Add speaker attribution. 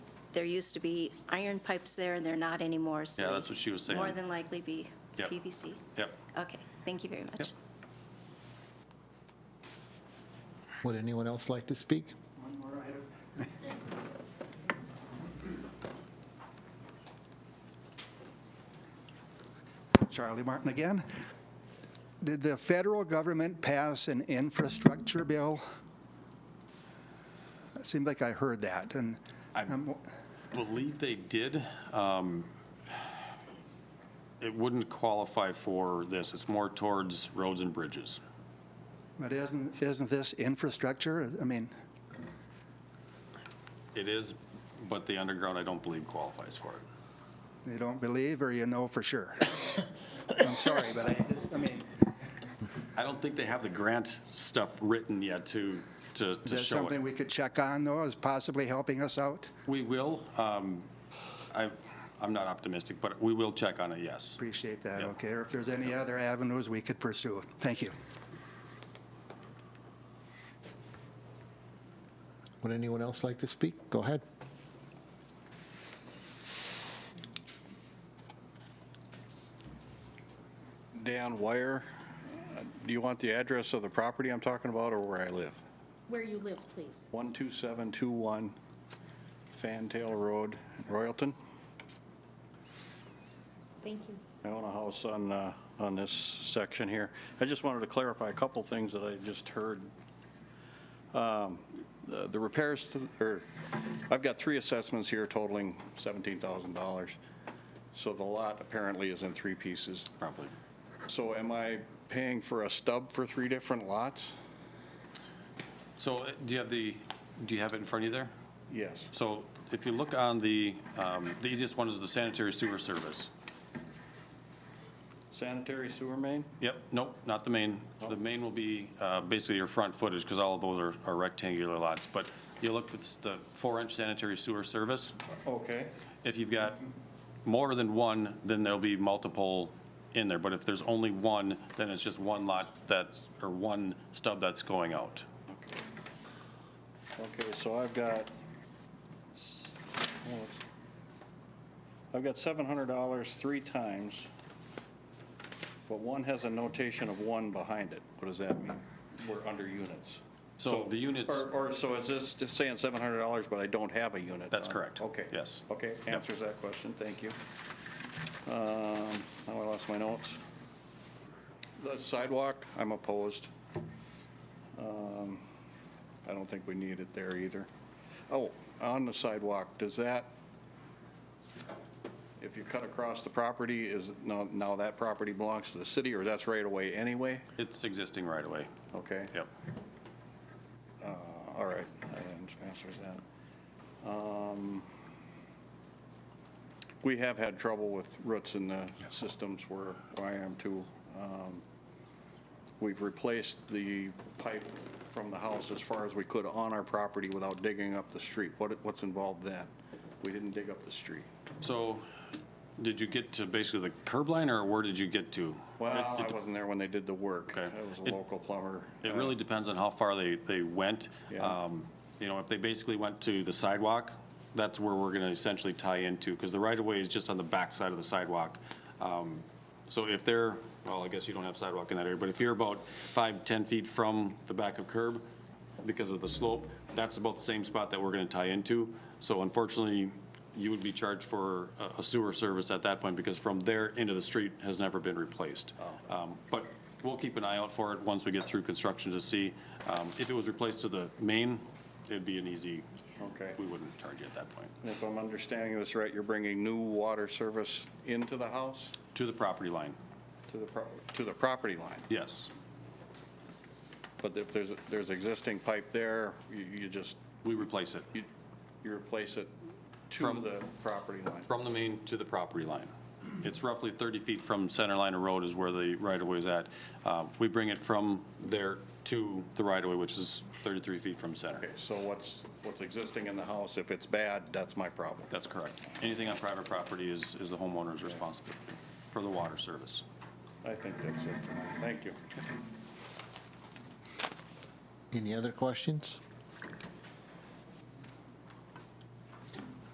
Speaker 1: there used to be iron pipes there, and they're not anymore, so.
Speaker 2: Yeah, that's what she was saying.
Speaker 1: More than likely be
Speaker 2: Yep.
Speaker 1: PVC.
Speaker 2: Yep.
Speaker 1: Okay, thank you very
Speaker 2: Yep.
Speaker 1: much.
Speaker 3: Would anyone else like to speak?
Speaker 4: Charlie Martin again. Did the federal government pass an infrastructure bill? It seemed like I heard that, and um, I'm-
Speaker 2: Believe they did. Um, It wouldn't qualify for this. It's more towards roads and bridges.
Speaker 4: but isn't, isn't this infrastructure? I mean,
Speaker 2: It is, but the underground, I don't believe qualifies for it.
Speaker 4: you don't believe or you know for sure? I'm sorry, but I, I mean,
Speaker 2: I don't think they have the grant stuff written yet to, to,
Speaker 4: is
Speaker 2: to
Speaker 4: that
Speaker 2: show
Speaker 4: something
Speaker 2: it.
Speaker 4: we could check on though, as possibly helping us out?
Speaker 2: We will. um, I, I'm not optimistic, but we will check on it, yes.
Speaker 4: Appreciate that,
Speaker 2: Yeah.
Speaker 4: okay? Or if there's any other avenues we could pursue. Thank you.
Speaker 3: Would anyone else like to speak? Go ahead.
Speaker 5: Dan Wire. Uh, Do you want the address of the property I'm talking about or where I live?
Speaker 6: Where you live, please.
Speaker 5: 12721 Fantail Road, Royalton.
Speaker 6: Thank you.
Speaker 5: I own a house on, uh, on this section here. I just wanted to clarify a couple things that I just heard. Um, The the repairs, to- or, I've got three assessments here totaling $17,000. So the lot apparently is in three pieces.
Speaker 2: Probably.
Speaker 5: So am I paying for a stub for three different lots?
Speaker 2: So uh, do you have the, do you have it in front of you there?
Speaker 5: Yes.
Speaker 2: So if you look on the, um, the easiest one is the sanitary sewer service.
Speaker 5: Sanitary sewer main?
Speaker 2: Yep, nope, not the main. The main will be uh, basically your front footage, because all of those are- are rectangular lots. But you look, it's the four-inch sanitary sewer service.
Speaker 5: Okay.
Speaker 2: If you've got more than one, then there'll be multiple in there. But if there's only one, then it's just one lot that's, or one stub that's going out.
Speaker 5: Okay, so I've got, s- oh, it's- I've got $700 three times, but one has a notation of one behind it. What does that mean? We're under units.
Speaker 2: So the units,
Speaker 5: Or, or so is this just saying $700, but I don't have a unit?
Speaker 2: That's
Speaker 5: on it?
Speaker 2: correct.
Speaker 5: Um, Okay.
Speaker 2: Yes.
Speaker 5: Okay, answers that question, thank you. Um, Now I lost my notes. The sidewalk, I'm opposed. Um, I don't think we need it there either. Oh, on the sidewalk, does that, if you cut across the property, is, now, now that property belongs to the city, or that's right away anyway?
Speaker 2: it's existing right away.
Speaker 5: Okay.
Speaker 2: Yep.
Speaker 5: All right, that ans- answers that. Um, We have had trouble with roots in the systems where I am too. Um, We've replaced the pipe from the house as far as we could on our property without digging up the street. What, what's involved then? We didn't dig up the street.
Speaker 2: So did you get to basically the curb line, or where did you get to?
Speaker 5: Well, I wasn't there when they did the work.
Speaker 2: Okay.
Speaker 5: I was
Speaker 2: It-
Speaker 5: a local plumber.
Speaker 2: It
Speaker 5: Uh,
Speaker 2: really depends on how far they, they went.
Speaker 5: Yeah.
Speaker 2: Um, You know, if they basically went to the sidewalk, that's where we're going to essentially tie into, because the right-of-way is just on the back side of the sidewalk. Um, So if they're, well, I guess you don't have sidewalk in that area, but if you're about five, 10 feet from the back of curb, because of the slope, that's about the same spot that we're going to tie into. So unfortunately, you would be charged for a- a sewer service at that point, because from there into the street has never been replaced. Um, But we'll keep an eye out for it once we get through construction to see. um, If it was replaced to the main, it'd be an easy,
Speaker 5: Okay.
Speaker 2: we wouldn't charge you at that point,
Speaker 5: And If I'm understanding this right, you're bringing new water service into the house,
Speaker 2: to the property line.
Speaker 5: to the, pro- to the property line?
Speaker 2: Yes,
Speaker 5: But if there's, there's existing pipe there, you, you just,
Speaker 2: we replace it,
Speaker 5: you, you replace it to
Speaker 2: From-
Speaker 5: the property line.
Speaker 2: from the main to the property line. It's roughly 30 feet from center line of road is where the right-of-way is at. Uh, We bring it from there to the right-of-way, which is 33 feet from center.
Speaker 5: Okay, so what's, what's existing in the house, if it's bad, that's my problem.
Speaker 2: That's correct. Anything on private property is, is the homeowner's responsibility for the water service.
Speaker 5: I think that's it. Thank you.
Speaker 3: Any other questions?